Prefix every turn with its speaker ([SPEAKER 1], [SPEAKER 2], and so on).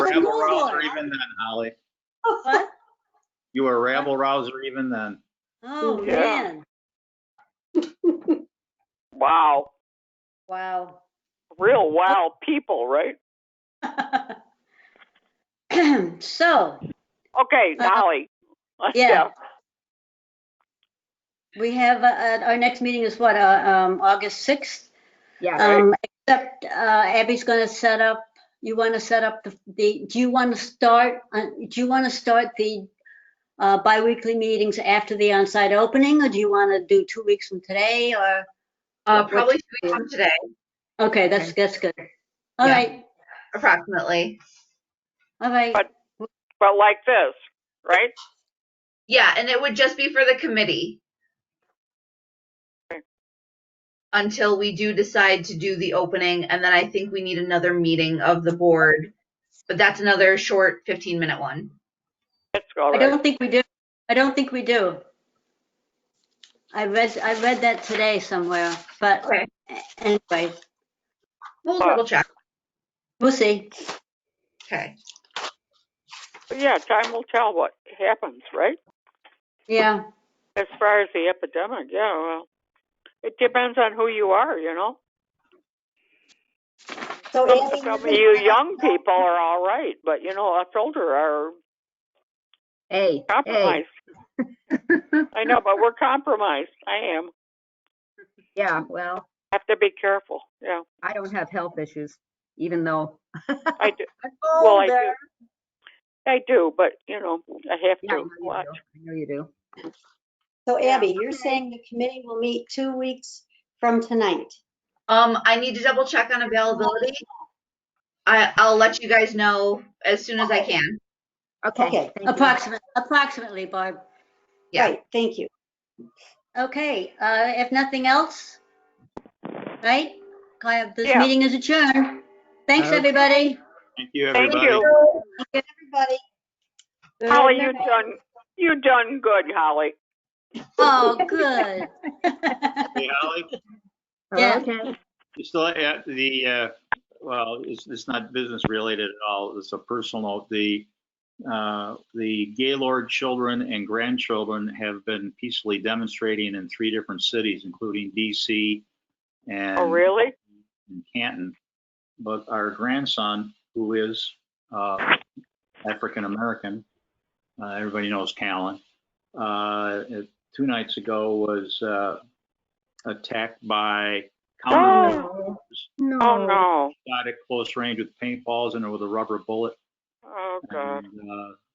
[SPEAKER 1] was
[SPEAKER 2] rabble
[SPEAKER 1] Google.
[SPEAKER 2] rouser even then, Holly.
[SPEAKER 1] What?
[SPEAKER 2] You were a rabble rouser even then.
[SPEAKER 1] Oh,
[SPEAKER 3] Yeah.
[SPEAKER 1] man.
[SPEAKER 3] Wow,
[SPEAKER 1] Wow. Uh-huh.
[SPEAKER 3] real wow people, right?
[SPEAKER 1] So,
[SPEAKER 3] Okay,
[SPEAKER 1] Uh,
[SPEAKER 3] Holly.
[SPEAKER 1] yeah. we have, uh, uh, our next meeting is what, uh, um, August 6th?
[SPEAKER 4] Yeah.
[SPEAKER 1] Um, except, uh, Abby's gonna set up, you wanna set up the- the, do you wanna start, uh, do you wanna start the uh, bi-weekly meetings after the on-site opening, or do you wanna do two weeks from today, or,
[SPEAKER 4] Uh, probably two weeks from today,
[SPEAKER 1] okay, that's, that's good. All
[SPEAKER 4] Yeah.
[SPEAKER 1] right,
[SPEAKER 4] approximately.
[SPEAKER 1] all right,
[SPEAKER 3] But- But like this, right?
[SPEAKER 4] Yeah, and it would just be for the committee. Until we do decide to do the opening, and then I think we need another meeting of the board. But that's another short fifteen minute one.
[SPEAKER 3] It's all
[SPEAKER 1] I
[SPEAKER 3] right.
[SPEAKER 1] don't think we do, I don't think we do. I read, I read that today somewhere, but
[SPEAKER 4] Okay.
[SPEAKER 1] anyway,
[SPEAKER 4] We'll double check.
[SPEAKER 1] we'll see.
[SPEAKER 4] Okay.
[SPEAKER 3] But Yeah, time will tell what happens, right?
[SPEAKER 1] Yeah,
[SPEAKER 3] As far as the epidemic, yeah, well, it depends on who you are, you know?
[SPEAKER 5] So
[SPEAKER 3] Some-
[SPEAKER 5] Abby,
[SPEAKER 3] Some of
[SPEAKER 5] you're
[SPEAKER 3] you
[SPEAKER 5] gonna-
[SPEAKER 3] young people are all right, but you know, us older are
[SPEAKER 6] Hey, hey,
[SPEAKER 3] compromised. I know, but we're compromised. I am.
[SPEAKER 6] yeah, well,
[SPEAKER 3] Have to be careful, yeah.
[SPEAKER 6] I don't have health issues, even though,
[SPEAKER 3] I do,
[SPEAKER 5] I'm
[SPEAKER 3] well, I do.
[SPEAKER 5] older.
[SPEAKER 3] I do, but you know, I have
[SPEAKER 6] yeah, I know
[SPEAKER 3] to
[SPEAKER 6] you do.
[SPEAKER 3] watch.
[SPEAKER 6] I know you do.
[SPEAKER 5] So Abby, you're saying the committee will meet two weeks from tonight?
[SPEAKER 4] Um, I need to double check on availability. I, I'll let you guys know as soon as I can.
[SPEAKER 6] Okay.
[SPEAKER 5] Okay,
[SPEAKER 6] thank you.
[SPEAKER 1] approximately, approximately, Barb.
[SPEAKER 4] Yeah.
[SPEAKER 5] Right, thank you.
[SPEAKER 1] Okay, uh, if nothing else, right? I have- This
[SPEAKER 3] Yeah.
[SPEAKER 1] meeting is adjourned. Thanks,
[SPEAKER 2] Okay.
[SPEAKER 1] everybody.
[SPEAKER 2] Thank you,
[SPEAKER 3] Thank
[SPEAKER 2] everybody.
[SPEAKER 3] you.
[SPEAKER 5] Everybody.
[SPEAKER 3] Holly, you done, you done good, Holly.
[SPEAKER 1] Oh, good.
[SPEAKER 2] Hey, Holly,
[SPEAKER 1] Yeah.
[SPEAKER 6] Okay,
[SPEAKER 2] you still at the, uh, well, it's, it's not business related at all. It's a personal note. The, uh, the Gaylord children and grandchildren have been peacefully demonstrating in three different cities, including DC and.
[SPEAKER 3] Oh, really?
[SPEAKER 2] in Canton, but our grandson, who is uh, African American, uh, everybody knows Callan, uh, it- two nights ago was uh, attacked by counter
[SPEAKER 3] Oh, oh,
[SPEAKER 6] no,
[SPEAKER 3] no.
[SPEAKER 2] shot at close range with paintballs and with a rubber bullet.
[SPEAKER 3] Oh, God.
[SPEAKER 2] And, uh,